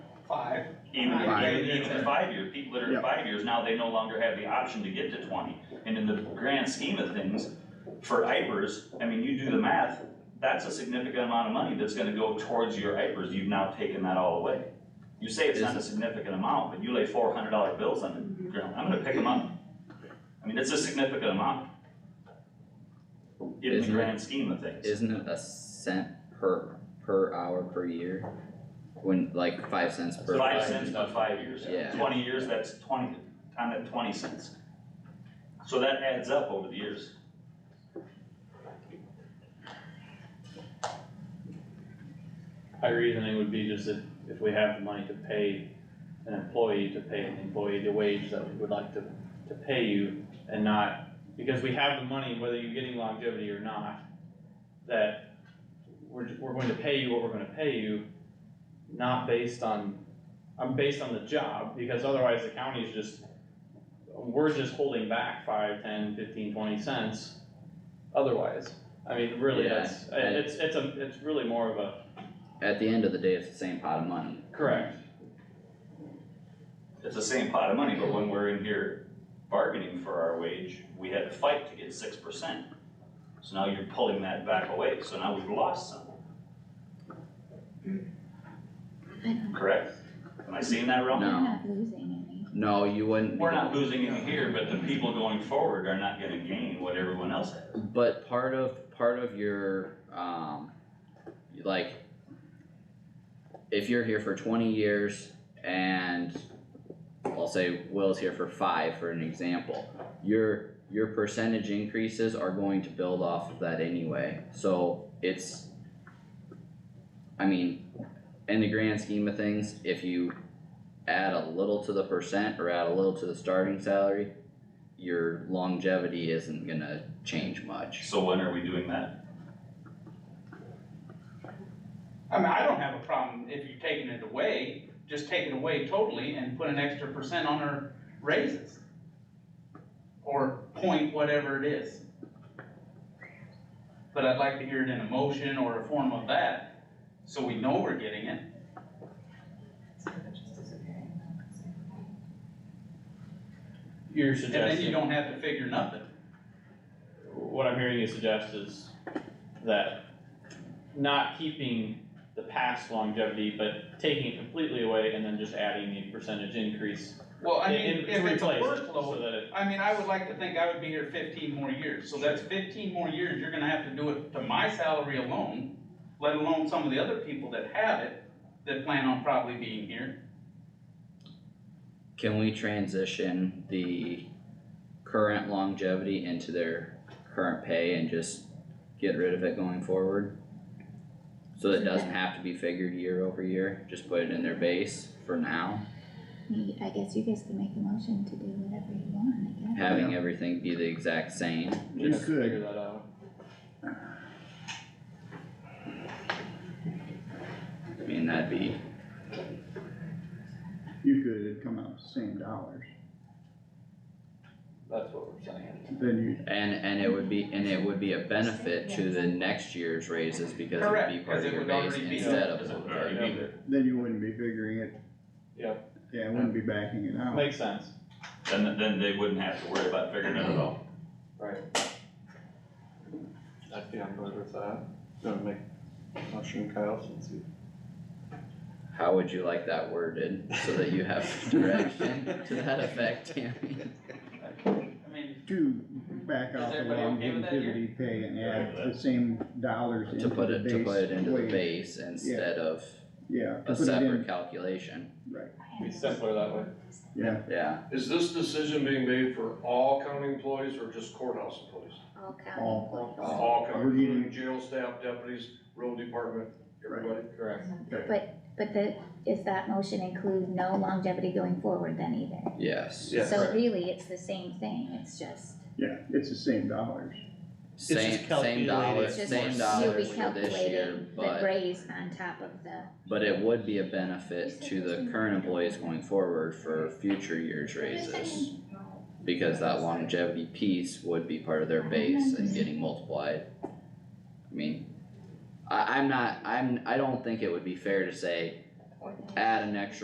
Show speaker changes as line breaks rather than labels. five.
Even if,
Five.
even even in five years, people that are
Yep.
in five years, now they no longer have the option to get to twenty. And in the grand scheme of things, for IPers, I mean, you do the math, that's a significant amount of money that's gonna go towards your IPers, you've now taken that all away. You say it's not a significant amount, but you lay four hundred dollar bills on the ground, I'm gonna pick them up. I mean, it's a significant amount. In the
Isn't it-
grand scheme of things.
Isn't it a cent per, per hour per year? When, like, five cents per.
Five cents by five years.
Yeah.
Twenty years, that's twenty, time at twenty cents. So that adds up over the years.
My reasoning would be just that if we have the money to pay an employee, to pay an employee the wage that we would like to, to pay you and not, because we have the money, whether you're getting longevity or not, that we're, we're going to pay you what we're gonna pay you, not based on, I'm based on the job, because otherwise the county is just, we're just holding back five, ten, fifteen, twenty cents otherwise. I mean, really,
Yeah,
that's,
I-
it's, it's a, it's really more of a,
At the end of the day, it's the same pot of money.
correct,
It's the same pot of money, but when we're in here bargaining for our wage, we had to fight to get six percent. So now you're pulling that back away, so now we've lost some. Correct? Am I seeing that wrong?
No.
We're not losing any.
No, you wouldn't.
We're not losing any here, but the people going forward are not gonna gain what everyone else has.
But part of, part of your, um, like, if you're here for twenty years and I'll say Will's here for five for an example, your, your percentage increases are going to build off of that anyway, so it's, I mean, in the grand scheme of things, if you add a little to the percent or add a little to the starting salary, your longevity isn't gonna change much.
So when are we doing that?
I mean, I don't have a problem if you're taking it away, just take it away totally and put an extra percent on our raises. Or point whatever it is. But I'd like to hear it in a motion or a form of that, so we know we're getting it.
You're
And then you
suggesting,
don't have to figure nothing.
what I'm hearing you suggest is that not keeping the past longevity, but taking it completely away and then just adding the percentage increase.
Well, I
in-
mean,
to
if it's a
replace it, So
workload,
that it,
I mean, I would like to think I would be here fifteen more years, so that's fifteen more years, you're gonna have to do it to my salary alone, let alone some of the other people that have it, that plan on probably being here.
Can we transition the current longevity into their current pay and just get rid of it going forward? So that it doesn't have to be figured year over year, just put it in their base for now,
Me- I guess you guys can make a motion to do whatever you want, I guess.
having everything be the exact same.
we have to
could.
figure that out.
I mean, that'd be,
You could, it'd come out the same dollars,
That's what we're saying.
then
and, and it would be, and it would be a benefit to the next year's raises because it would be
Correct,
part
cause it
of your
would
base
already be,
instead of.
Because it would
okay.
already be there.
you, then you wouldn't be figuring it.
Yeah.
Yeah, it wouldn't be backing it out.
Makes sense.
Then, then they wouldn't have to worry about figuring it out.
I'd be on board with that. Don't make motion Kyle since you.
How would you like that worded so that you have direction to that effect, Tammy?
I mean,
To back out
Is
the
everybody okay with that here?
longevity pay and
Right
add
with
the same dollars
To
into the base.
put it, to put it into the
wage.
base instead of
Yeah. to
a
put it in-
separate calculation,
Be simpler that way.
Yeah,
yeah.
Is this decision being made for all county employees or just courthouse employees?
All
All-
county employees.
All
We're
county,
getting-
including jail staff, deputies, road department, everybody?
Correct.
But, but the, is that motion include no longevity going forward then either?
Yes.
Yes.
So really, it's the same thing, it's just,
yeah, it's the same dollars.
just
Same, same
calculated.
dollars,
it's just
same
you'll be
dollars for this year,
calculating the
but,
raise on top of the,
but it would be a benefit to the current employees going forward for future years raises. Because that longevity piece would be part of their base and getting multiplied. I mean, I, I'm not, I'm, I don't think it would be fair to say, add an extra